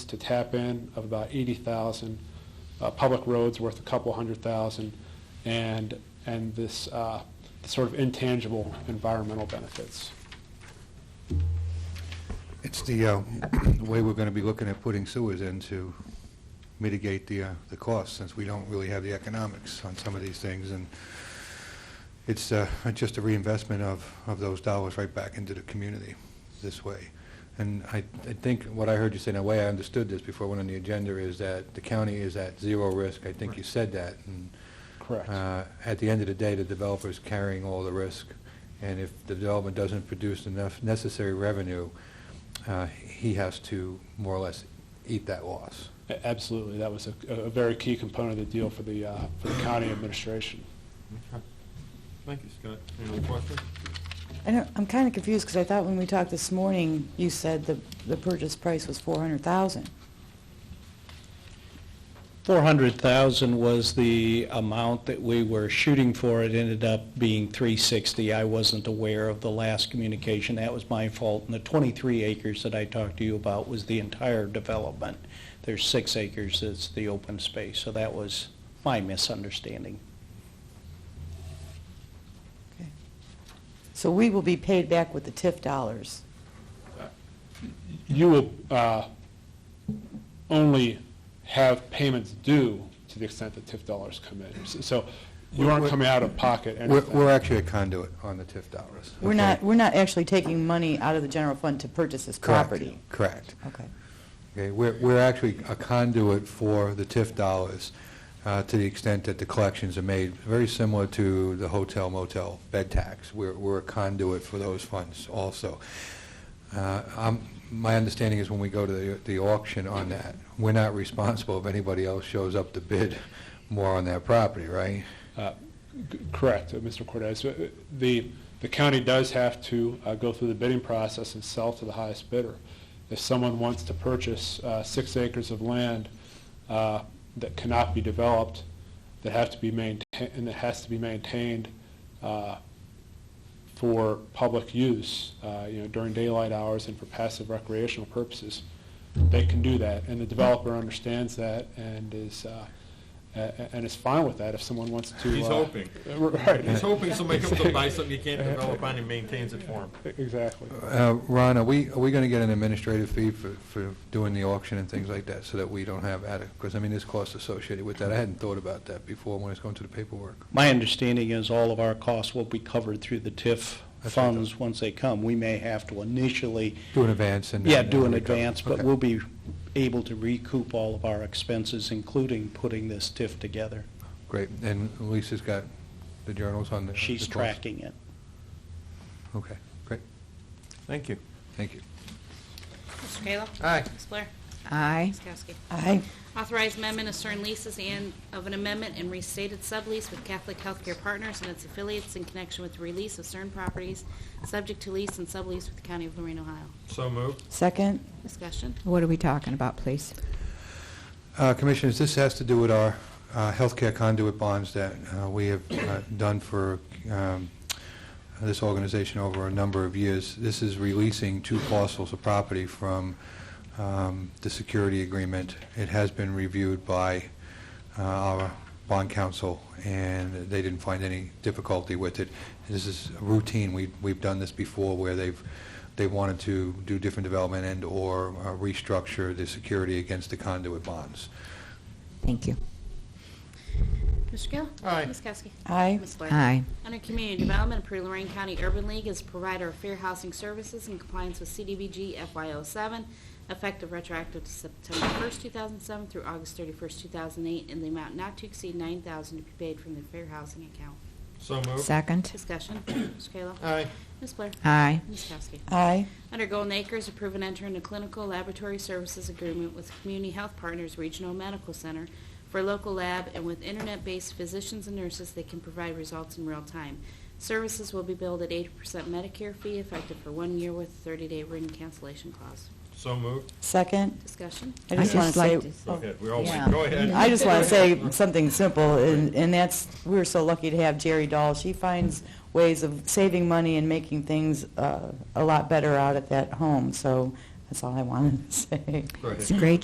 to tap in of about 80,000, uh, public roads worth a couple hundred thousand, and, and this uh, sort of intangible environmental benefits. It's the uh, way we're going to be looking at putting sewers in to mitigate the, uh, the cost, since we don't really have the economics on some of these things, and it's uh, just a reinvestment of, of those dollars right back into the community this way. And I, I think what I heard you say, and the way I understood this before it went on the agenda, is that the county is at zero risk. I think you said that, and Correct. uh, At the end of the day, the developer's carrying all the risk, and if the development doesn't produce enough necessary revenue, uh, he has to more or less eat that loss. A- Absolutely, that was a, a very key component of the deal for the, uh, for the county administration. Okay. Thank you, Scott. Any other questions? I don't, I'm kind of confused because I thought when we talked this morning, you said the, the purchase price was 400,000. 400,000 was the amount that we were shooting for. It ended up being 360. I wasn't aware of the last communication. That was my fault. And the 23 acres that I talked to you about was the entire development. There's six acres that's the open space, so that was my misunderstanding. So we will be paid back with the TIF dollars. You will uh, only have payments due to the extent that TIF dollars come in. S- So you aren't coming out of pocket We're anything. we're actually a conduit on the TIF dollars. We're okay? not, we're not actually taking money out of the general fund to purchase this Correct, property. Correct. Okay. Okay, We're we're actually a conduit for the TIF dollars uh, to the extent that the collections are made, very similar to the hotel motel bed tax. We're we're a conduit for those funds also. Uh, I'm- My understanding is when we go to the- the auction on that, we're not responsible if anybody else shows up to bid more on that property, right? C- Correct, uh, Mr. Cortez. Uh, The, the county does have to uh, go through the bidding process and sell to the highest bidder. If someone wants to purchase uh, six acres of land uh, that cannot be developed, that have to be maintained, and that has to be maintained uh, for public use, uh, you know, during daylight hours and for passive recreational purposes, they can do that. And the developer understands that and is, uh, a- a- and is fine with that if someone wants to. He's uh, hoping. Right. He's hoping somebody comes up buys something you can't develop on and maintains it for him. Exactly. Uh, Ron, are we, are we going to get an administrative fee for, for doing the auction and things like that, so that we don't have adequate, because, I mean, there's costs associated with that. I hadn't thought about that before when I was going through the paperwork. My understanding is all of our costs will be covered through the TIF That's right, though. funds once they come. We may have to initially Do an advance and... Yeah, then do an recover. advance, but Okay. we'll be able to recoup all of our expenses, including putting this TIF together. Great, and Lisa's got the journals on the... She's the cost. tracking it. Okay, great, Thank you. thank you. Mr. Kayla? Aye. Ms. Blair? Aye. Ms. Kowski? Aye. Authorize amendment of certain leases and of an amendment and restated sublease with Catholic Healthcare Partners and its affiliates in connection with the release of certain properties subject to lease and sublease with the County of Lorraine, Ohio. So moved. Second? Discussion. What are we talking about, please? Uh, Commissioners, this has to do with our uh, healthcare conduit bonds that uh, we have uh, done for um, this organization over a number of years. This is releasing two parcels of property from um, the security agreement. It has been reviewed by uh, our bond counsel, and they didn't find any difficulty with it. This is routine. We- We've done this before where they've, they wanted to do different development and/or uh, restructure the security against the conduit bonds. Thank you. Mr. Kayla? Aye. Ms. Kowski? Aye. Ms. Blair? Aye. Under Community Development, approve Lorraine County Urban League as provider of fair housing services in compliance with CDBG FY07, effective retroactive to September 1st, 2007 through August 31st, 2008, in the amount not to exceed 9000 to be paid from the fair housing account. So moved. Second? Discussion. Mr. Kayla. Aye. Ms. Blair. Aye. Ms. Kowski. Aye. Under Golden Acres, approve and enter into clinical laboratory services agreement with Community Health Partners Regional Medical Center for local lab and with internet-based physicians and nurses that can provide results in real time. Services will be billed at 80% Medicare fee effective for one year with a 30-day written cancellation clause. So moved. Second? Discussion. I I just just want to say... like to s- Go ahead. We're all, Yeah. go ahead. I just want to say something simple, and and that's, we're so lucky to have Jerry Dahl. She finds ways of saving money and making things uh, a lot better out at that home, so that's all I wanted to say. Go ahead. It's great